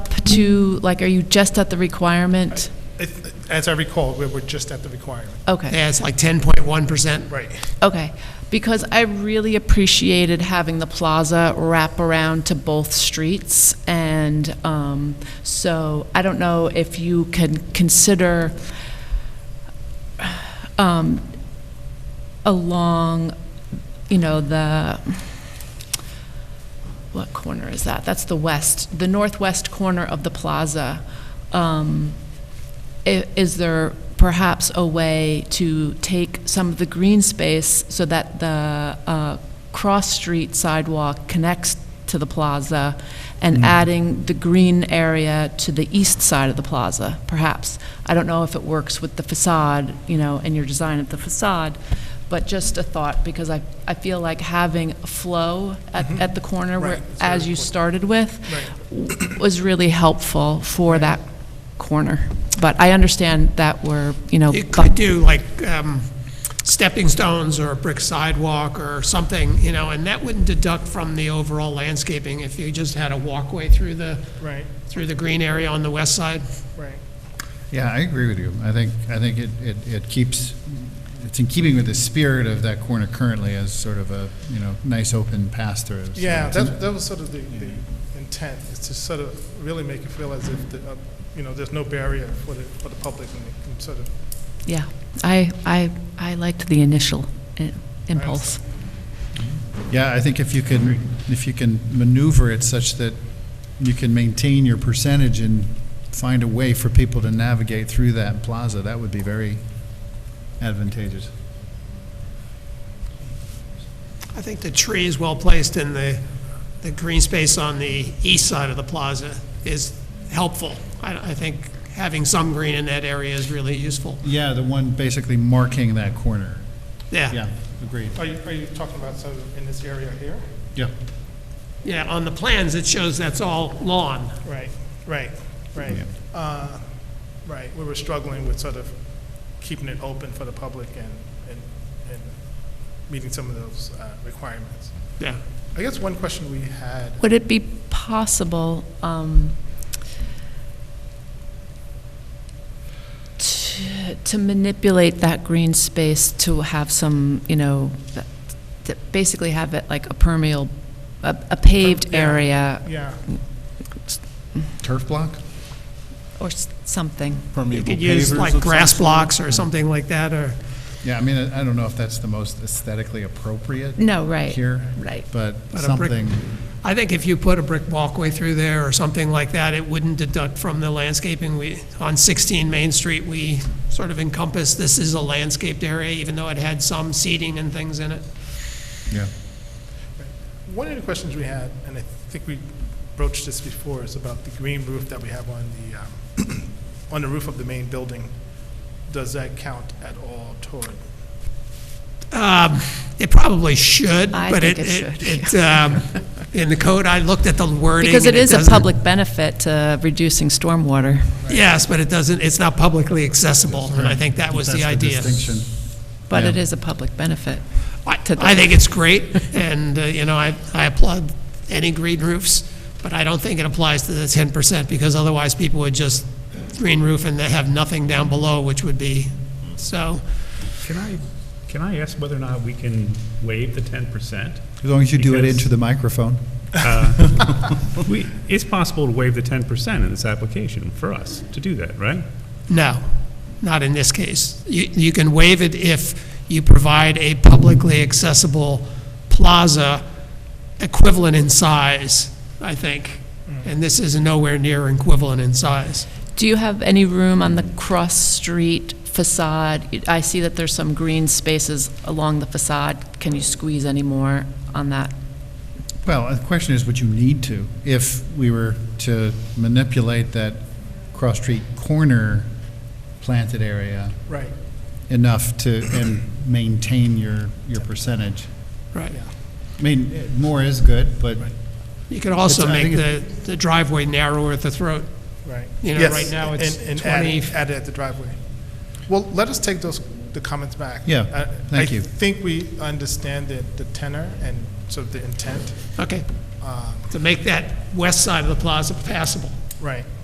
to, like, are you just at the requirement? It- As I recall, we were just at the requirement. Okay, Yeah, it's like 10.1%. Right. okay. Because I really appreciated having the plaza wrap around to both streets. And um, so I don't know if you can consider um, along, you know, the, what corner is that? That's the west, the northwest corner of the plaza. Um, i- Is there perhaps a way to take some of the green space so that the uh, cross-street sidewalk connects to the plaza and adding the green area to the east side of the plaza, perhaps? I don't know if it works with the facade, you know, and your design of the facade, but just a thought, because I, I feel like having flow at, at the corner where, Right, it's very as you important. started with, was really helpful for that corner. But I understand that we're, you know, You bu- could do like um, stepping stones or a brick sidewalk or something, you know, and that wouldn't deduct from the overall landscaping if you just had a walkway through the, Right, through the green area on the west side. right. Yeah, I agree with you. I think, I think it, it, it keeps, it's in keeping with the spirit of that corner currently as sort of a, you know, nice open pass through. So Yeah, it's in- that, that was sort of the, the intent, is to sort of really make it feel as if, the, uh, you know, there's no barrier for the, for the public and it can sort of, yeah, I, I, I liked the initial i- impulse. Yeah, I think if you can, if you can maneuver it such that you can maintain your percentage and find a way for people to navigate through that plaza, that would be very advantageous. I think the tree is well placed and the, the green space on the east side of the plaza is helpful. I, I think having some green in that area is really useful. Yeah, the one basically marking that corner. Yeah, agreed. are you, are you talking about sort of in this area here? Yeah. Yeah, on the plans, it shows that's all lawn. Right, right, right. Yeah. Uh, Right, we were struggling with sort of keeping it open for the public and, and, and meeting some of those uh, requirements. Yeah. I guess one question we had, Would it be possible um, to to manipulate that green space to have some, you know, that- to basically have it like a permeable, a a paved Yeah. area yeah, Turf block? or s- something? You permeable could use pavers like of grass some blocks or something like that, or, Yeah, I mean, I I don't know if that's the most aesthetically appropriate No, right. here. Right. But But a brick- something, I think if you put a brick walkway through there or something like that, it wouldn't deduct from the landscaping. We, on 16 Main Street, we sort of encompass, this is a landscaped area, even though it had some seating and things in it. yeah. One of the questions we had, and I think we broached this before, is about the green roof that we have on the, um, on the roof of the main building. Does that count at all toward? Um, It probably should, I but think it, it it, it, um, in the code, I looked at the wording. Because it and is a doesn't- public benefit to reducing stormwater. Yes, but it doesn't, it's not publicly accessible, and I think that was the That's idea. distinction. But it Yeah. is a public benefit. I to the- I think it's great, and, uh, you know, I I applaud any green roofs, but I don't think it applies to the 10%, because otherwise people would just green roof and they have nothing down below, which would be, so, Can I, can I ask whether or not we can waive the ten percent? As long as you do it Because- into the microphone. We, it's possible to waive the ten percent in this application for us to do that, right? no, not in this case. You you can waive it if you provide a publicly accessible plaza equivalent in size, I think, and this is nowhere near equivalent in size. Do you have any room on the cross-street facade? I see that there's some green spaces along the facade. Can you squeeze any more on that? Well, the question is, would you need to? If we were to manipulate that cross-street corner planted area Right. enough to, and maintain your, your percentage? Right. I mean, eh, more is good, but You could also It's- I make think the, the driveway narrower at the throat. Right. You know, Yes, right now it's and- and add it- 20. Add it at the driveway. Well, let us take those, the comments back. Yeah, I- thank I you. think we understand the the tenor and sort of the intent. Okay, Um, to make that west side of the plaza passable. Right.